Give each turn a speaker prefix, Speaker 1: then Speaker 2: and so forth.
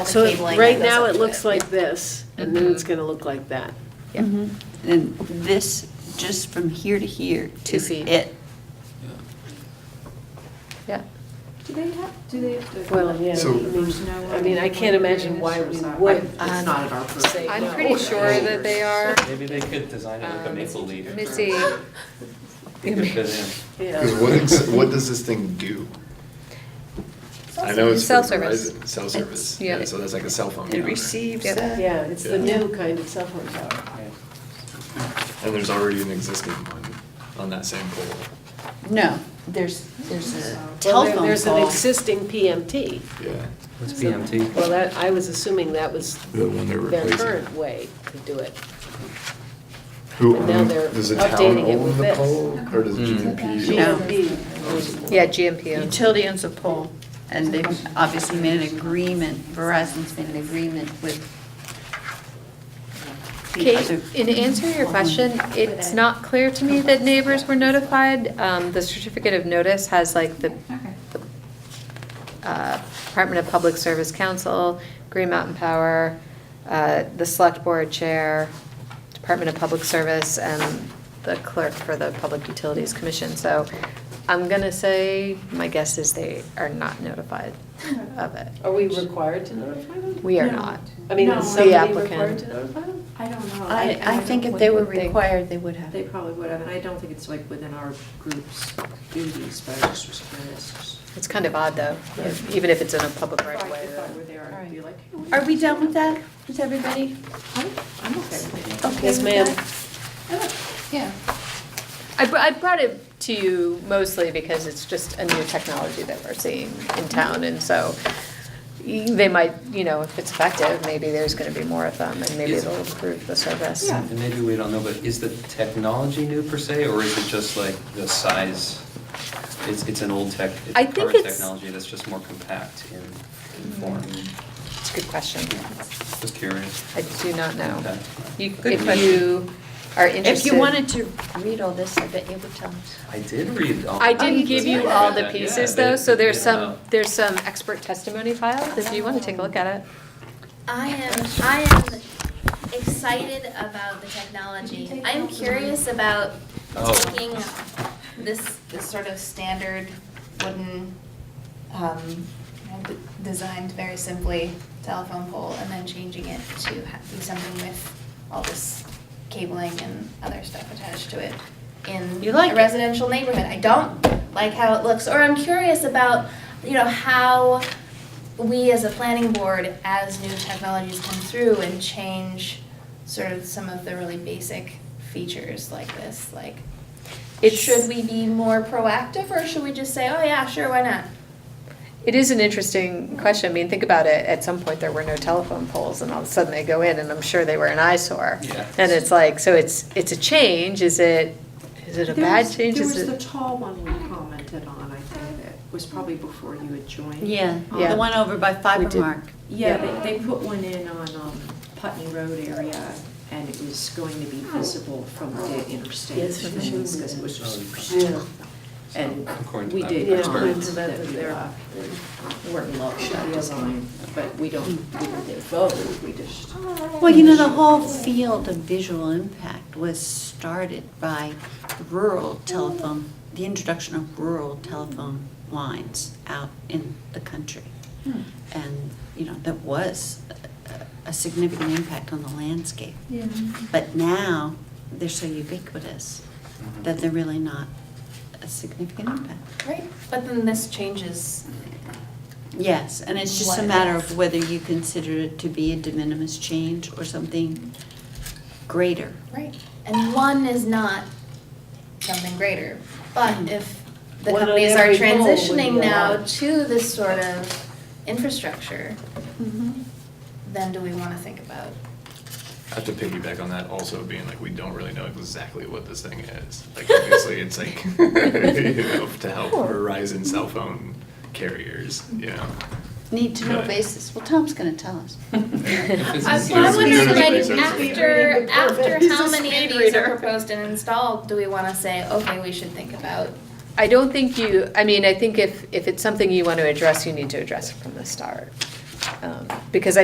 Speaker 1: So it-
Speaker 2: cabling that
Speaker 1: right
Speaker 2: goes
Speaker 1: now,
Speaker 2: up
Speaker 1: it
Speaker 2: to
Speaker 1: looks
Speaker 2: it.
Speaker 1: like this, and then it's going to look like that.
Speaker 3: And this, just from here to here, to
Speaker 2: Is he-
Speaker 3: it.
Speaker 2: Yeah.
Speaker 4: Do they have, do they have to?
Speaker 1: Well, yeah, I
Speaker 5: So-
Speaker 1: mean,
Speaker 4: There's no,
Speaker 1: I mean, I can't imagine why we
Speaker 4: It's not-
Speaker 1: would.
Speaker 4: It's not at our. purview.
Speaker 1: say-
Speaker 6: Um, I'm pretty sure that they are.
Speaker 7: Maybe they could design it like a
Speaker 6: Um,
Speaker 7: maple leaf.
Speaker 6: Let me see.
Speaker 7: It could fit in.
Speaker 1: Yeah.
Speaker 5: Because what, ex- what does this thing do? I know it's for
Speaker 6: Self-service.
Speaker 5: Verizon, cell service,
Speaker 6: yeah.
Speaker 5: yeah, so that's like a cell phone
Speaker 3: It
Speaker 5: tower.
Speaker 3: receives
Speaker 6: Yep.
Speaker 3: that.
Speaker 1: Yeah, it's the
Speaker 5: Yeah.
Speaker 1: new kind of cell phone tower.
Speaker 7: Yeah.
Speaker 5: And there's already an existing one on that same pole.
Speaker 3: No, there's, there's a
Speaker 1: Well, there-
Speaker 3: telephone pole.
Speaker 1: There's an existing PMT.
Speaker 5: Yeah.
Speaker 7: What's
Speaker 1: So-
Speaker 7: PMT?
Speaker 1: Well, that, I was assuming that was
Speaker 5: The one they're
Speaker 1: their
Speaker 5: replacing.
Speaker 1: current way to do it.
Speaker 5: Who
Speaker 1: And now
Speaker 5: owns,
Speaker 1: they're
Speaker 5: does the town
Speaker 1: updating it with
Speaker 5: own the
Speaker 1: this.
Speaker 5: pole, or does
Speaker 7: Mm.
Speaker 5: GMP?
Speaker 3: No.
Speaker 6: Yeah, GMP.
Speaker 3: Utility owns a pole, and they've obviously made an agreement, Verizon's made an agreement with the
Speaker 6: Kate,
Speaker 3: other.
Speaker 6: in answer to your question, it's not clear to me that neighbors were notified. Um, The certificate of notice has like the uh, Department of Public Service Council, Green Mountain Power, uh, the Select Board Chair, Department of Public Service, and the clerk for the Public Utilities Commission. So I'm going to say, my guess is they are not notified of it.
Speaker 1: Are we required to notify them?
Speaker 6: We are
Speaker 4: No.
Speaker 6: not.
Speaker 1: I mean,
Speaker 4: No.
Speaker 1: is
Speaker 6: The
Speaker 1: somebody
Speaker 6: applicant.
Speaker 1: required to notify them?
Speaker 4: I don't know.
Speaker 3: I, I
Speaker 4: don't
Speaker 3: think
Speaker 4: know
Speaker 3: if
Speaker 4: what
Speaker 3: they
Speaker 4: you
Speaker 3: were
Speaker 4: would think.
Speaker 3: required, they would have.
Speaker 4: They probably would have, and I don't think it's like within our group's duties, but I just was curious.
Speaker 6: It's kind of odd, though, if- even if it's in a public right of
Speaker 4: If I-
Speaker 6: way.
Speaker 4: If I were there, I'd be like, hey, what
Speaker 3: Are we done with that? Is everybody
Speaker 4: I'm I'm okay with it.
Speaker 3: okay
Speaker 1: Yes,
Speaker 3: with
Speaker 1: ma'am.
Speaker 3: that?
Speaker 6: Yeah. I, br- I brought it to you mostly because it's just a new technology that we're seeing in town, and so y- they might, you know, if it's effective, maybe there's gonna be more of them, and maybe
Speaker 7: Yes.
Speaker 6: it'll improve the service.
Speaker 4: Yeah.
Speaker 7: And maybe we don't know, but is the technology new per se, or is it just like the size? It's, it's an old tech,
Speaker 6: I think
Speaker 7: current
Speaker 6: it's-
Speaker 7: technology that's just more compact in,
Speaker 6: Hmm.
Speaker 7: in form.
Speaker 6: It's a good question.
Speaker 7: Just curious.
Speaker 6: I do not know.
Speaker 7: Okay.
Speaker 6: You,
Speaker 7: Good
Speaker 6: if
Speaker 7: question.
Speaker 6: you are interested.
Speaker 3: If you wanted to read all this, I bet you would tell us.
Speaker 7: I did read all.
Speaker 3: Oh,
Speaker 6: I
Speaker 3: you
Speaker 6: didn't give you
Speaker 3: did?
Speaker 6: all the
Speaker 7: Yeah,
Speaker 6: pieces,
Speaker 7: they-
Speaker 6: though, so there's
Speaker 7: yeah.
Speaker 6: some, there's some expert testimony filed, if you wanna take a look at it.
Speaker 2: I am, I am excited about the technology. I'm curious about
Speaker 7: Oh.
Speaker 2: taking this, this sort of standard wooden, um, you know, d- designed very simply telephone pole and then changing it to ha- be something with all this cabling and other stuff attached to it in
Speaker 3: You like
Speaker 2: a
Speaker 3: it.
Speaker 2: residential neighborhood. I don't like how it looks, or I'm curious about, you know, how we as a planning board, as new technologies come through and change sort of some of the really basic features like this, like,
Speaker 6: It's-
Speaker 2: should we be more proactive or should we just say, oh yeah, sure, why not?
Speaker 6: It is an interesting question. I mean, think about it. At some point, there were no telephone poles, and all of a sudden they go in, and I'm sure they were an eyesore.
Speaker 7: Yeah.
Speaker 6: And it's like, so it's, it's a change. Is it, is it a
Speaker 4: There
Speaker 6: bad
Speaker 4: was-
Speaker 6: change? Is
Speaker 4: There was the
Speaker 6: it?
Speaker 4: tall one we commented on, I think, that was probably before you had joined.
Speaker 3: Yeah,
Speaker 6: Yeah.
Speaker 3: the one over by
Speaker 6: We
Speaker 3: Fiber
Speaker 6: did.
Speaker 3: Mark.
Speaker 4: Yeah, they, they put one in on um, Putney Road area, and it was going to be visible from the interstate
Speaker 1: Yes, we showed
Speaker 4: things, because it was just.
Speaker 1: Yeah.
Speaker 4: And
Speaker 7: Oh, According to
Speaker 4: we
Speaker 7: that
Speaker 4: did
Speaker 1: Yeah,
Speaker 4: comment
Speaker 1: according to
Speaker 4: that
Speaker 1: that,
Speaker 4: we
Speaker 1: they're-
Speaker 4: uh, weren't in love with that design, but we don't, we didn't vote, we just.
Speaker 3: Well, you know, the whole field of visual impact was started by rural telephone, the introduction of rural telephone lines out in the country. Hmm. And, you know, that was a- a significant impact on the landscape. But now, they're so ubiquitous that they're really not a significant impact.
Speaker 2: Right, but then this changes
Speaker 3: Yes, and it's just a
Speaker 2: What
Speaker 3: matter
Speaker 2: if?
Speaker 3: of whether you consider it to be a de minimis change or something greater.
Speaker 2: Right. And one is not something greater. But if the
Speaker 1: One on
Speaker 2: companies are
Speaker 1: every pole would be
Speaker 2: transitioning now
Speaker 1: allowed.
Speaker 2: to this sort of infrastructure, then do we want to think about?
Speaker 5: I have to piggyback on that also being like, we don't really know exactly what this thing is. Like, obviously, it's like, you know, to help Verizon cell phone carriers, you know.
Speaker 3: Need to know
Speaker 5: Right.
Speaker 3: basis. Well, Tom's gonna tell us.
Speaker 7: If it's
Speaker 2: I-
Speaker 7: a
Speaker 2: well, I'm
Speaker 5: serious
Speaker 2: wondering,
Speaker 5: business
Speaker 2: like,
Speaker 5: reason.
Speaker 2: after, after
Speaker 1: He's
Speaker 2: how
Speaker 1: a
Speaker 2: many
Speaker 1: speed
Speaker 2: of these are
Speaker 1: reader.
Speaker 2: proposed and installed, do we want to say, okay, we should think about?
Speaker 6: I don't think you, I mean, I think if, if it's something you want to address, you need to address it from the start. Um, Because I.